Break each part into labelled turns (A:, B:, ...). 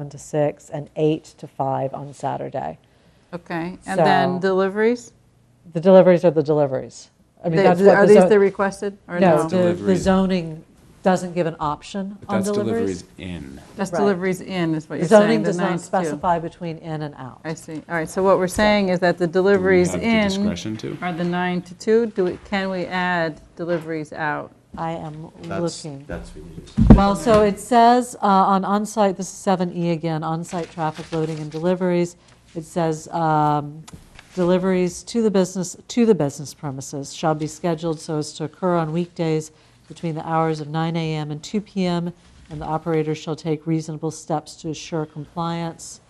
A: 7 to 6, and 8 to 5 on Saturday.
B: Okay, and then
A: So-
B: deliveries?
A: The deliveries are the deliveries. I mean,
B: They-
A: that's what
B: Are
A: the
B: these
A: zo-
B: the requested or
A: No, the-
B: no?
A: the
C: Deliveries.
A: zoning doesn't give an option
C: But
A: on
C: that's deliveries
A: deliveries.
C: in.
B: That's
A: right.
B: deliveries in is what
A: The
B: you're saying,
A: zoning
B: the
A: does
B: nine
A: not
B: to two.
A: specify between in and out.
B: I see, all right, so what we're saying is that the deliveries
C: Do we
B: in
C: have the discretion to?
B: are the nine to two, do, we- can we add deliveries out?
A: I am
D: That's,
A: looking.
D: that's what it is.
A: Well, so it says uh, on onsite, this is 7E again, onsite traffic loading and deliveries. It says um, deliveries to the business, to the business premises shall be scheduled so as to occur on weekdays between the hours of 9 AM and 2 PM, and the operator shall take reasonable steps to assure compliance.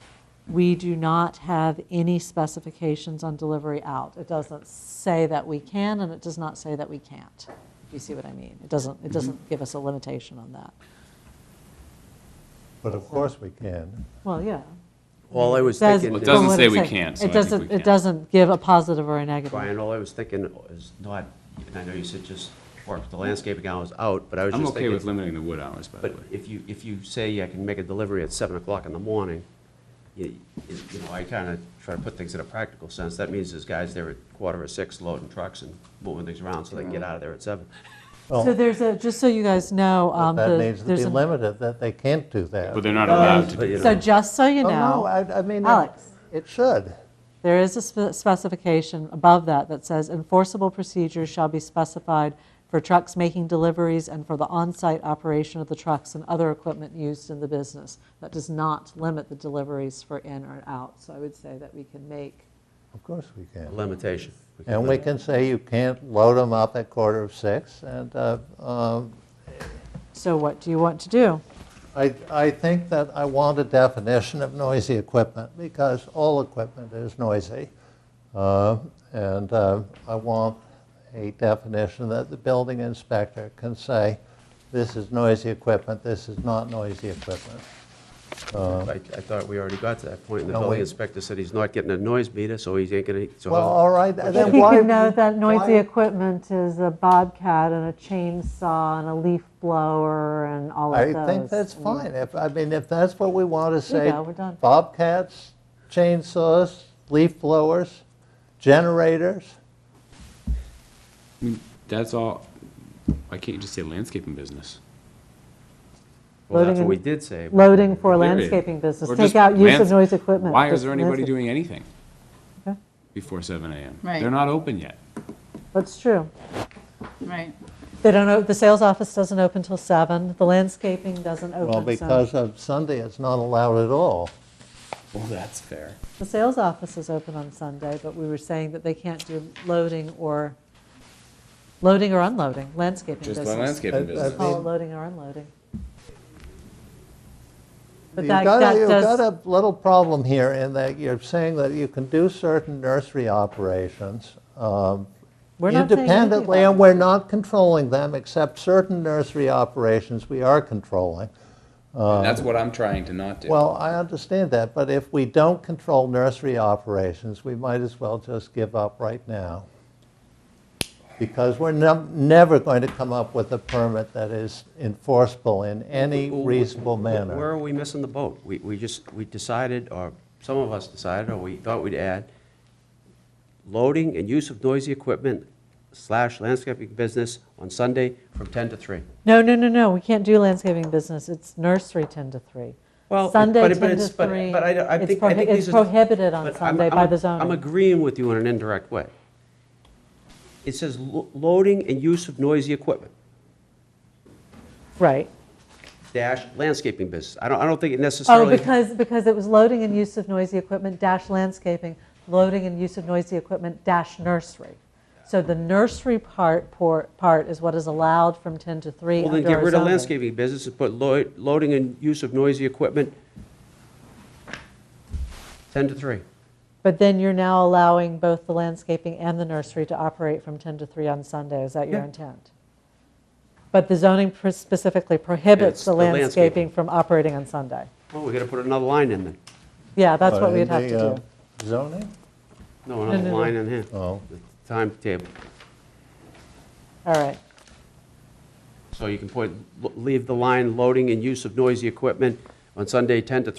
A: We do not have any specifications on delivery out. It doesn't say that we can, and it does not say that we can't. Do you see what I mean? It doesn't, it
C: Mm-hmm.
A: doesn't give us a limitation on that.
E: But of course we can.
A: Well, yeah.
D: All I was
A: Says-
D: thinking,
C: Well, it
A: Well,
C: doesn't
A: what
C: say
A: it
C: we
A: says-
C: can't, so I
A: It
C: think we
A: doesn't,
C: can.
A: it doesn't give a positive or a negative.
D: Brian, all I was thinking is not, and I know you said just, or the landscaping hours out, but I was
C: I'm
D: just
C: okay with
D: thinking.
C: limiting the wood hours, by the
D: But
C: way.
D: if you, if you say I can make a delivery at seven o'clock in the morning, you, you know, I kind of try to put things in a practical sense. That means there's guys there at quarter of six loading trucks and moving things around so they can get out of there at seven.
A: So
E: Well,
A: there's a, just so you guys know,
E: but
A: um,
E: that
A: the-
E: needs to
A: there's
E: be
A: a.
E: limited, that they can't do that.
C: But they're not allowed to
D: But,
C: do
D: you
A: So
D: know,
A: just so you
E: Oh, No,
A: know,
E: I, I mean. it-
A: Alex,
E: It should.
A: there is a spe- specification above that that says enforceable procedures shall be specified for trucks making deliveries and for the on-site operation of the trucks and other equipment used in the business. That does not limit the deliveries for in or out. So I would say that we can make
E: Of course we
D: a
E: can.
D: limitation.
E: And we can say you can't load them up at quarter of six. And uh, um,
A: So what do you want to do?
E: I, I think that I want a definition of noisy equipment because all equipment is noisy. Uh, And uh, I want a definition that the building inspector can say, this is noisy equipment, this is not noisy equipment.
D: I, I thought we already got to that point, and the
E: No,
D: building
E: we-
D: inspector said he's not getting a noise meter, so he ain't gonna, so.
E: Well, all right,
A: If
E: then
A: he
E: why?
A: could know that noisy
E: why-
A: equipment is a bobcat and a chainsaw and a leaf blower and all of
E: I
A: those.
E: think that's fine. If, I mean, if that's what we want to say.
A: go, we're done.
E: Bobcats, chainsaws, leaf blowers, generators.
C: That's all, why can't you just say landscaping business?
D: Well, that's
A: Loading
D: what we
A: and-
D: did say. but-
A: Loading for
C: Period.
A: landscaping business,
C: Or
A: take
C: just
A: out use of
C: lands-
A: noise equipment.
C: Why is
A: just
C: there anybody
A: landscape-
C: doing anything
A: Okay.
C: before seven AM?
B: Right.
C: They're not open yet.
A: That's true.
B: Right,
A: They don't, o- the sales office doesn't open till seven. the landscaping doesn't open.
E: Well,
A: so-
E: because of Sunday, it's not allowed at all.
C: Well, that's fair.
A: The sales office is open on Sunday, but we were saying that they can't do loading or, loading or unloading, landscaping
C: Just
A: business.
C: the landscaping
E: I- I
C: business.
A: Call it
E: mean-
A: loading or unloading. But
E: You've
A: that,
E: got, a-
A: that
E: you've
A: does.
E: got a little problem here in that you're saying that you can do certain nursery operations um,
A: We're not saying anything
E: independently,
A: about
E: and we're not controlling them, except certain nursery operations we are controlling.
C: That's what I'm trying to not do.
E: Well, I understand that, but if we don't control nursery operations, we might as well just give up right now. Because we're num- never going to come up with a permit that is enforceable in any reasonable manner.
D: Where are we missing the boat? We, we just, we decided, or some of us decided, or we thought we'd add, loading and use of noisy equipment slash landscaping business on Sunday from 10 to 3.
A: No, no, no, no, we can't do landscaping business, it's nursery 10 to 3.
D: Well, it-
A: Sunday
D: but it-
A: 10
D: but
A: to
D: it's- but-
A: 3.
D: But I, don't- I
A: It's
D: think, I
A: prohi-
D: think these
A: It's
D: are.
A: prohibited on
D: but I'm-
A: Sunday
D: I'm-
A: by the
D: I'm
A: zoning.
D: agreeing with you in an indirect way. It says lo- loading and use of noisy equipment,
A: Right.
D: dash, landscaping business. I don't, I don't think it
A: Oh,
D: necessarily.
A: because, because it was loading and use of noisy equipment dash landscaping, loading and use of noisy equipment dash nursery. So the nursery part, por- part is what is allowed from 10 to 3
D: Well, then
A: under
D: get
A: our
D: rid of
A: zoning.
D: landscaping business and put lo- loading and use of noisy equipment 10 to 3.
A: But then you're now allowing both the landscaping and the nursery to operate from 10 to 3 on Sunday, is that your
D: Yeah.
A: intent? But the zoning pr- specifically prohibits
D: It's
A: the
D: the landscaping.
A: landscaping from operating on Sunday.
D: Well, Oh, we gotta put another line in there.
A: Yeah, that's
E: But
A: what
E: in
A: we'd have to
E: the, uh,
A: do.
E: Zoning?
D: No,
A: no,
D: another
A: no.
D: line in here.
E: Oh.
D: The Timetable.
A: All right,
D: So you can put, leave the line loading and use of noisy equipment on Sunday 10 to 3.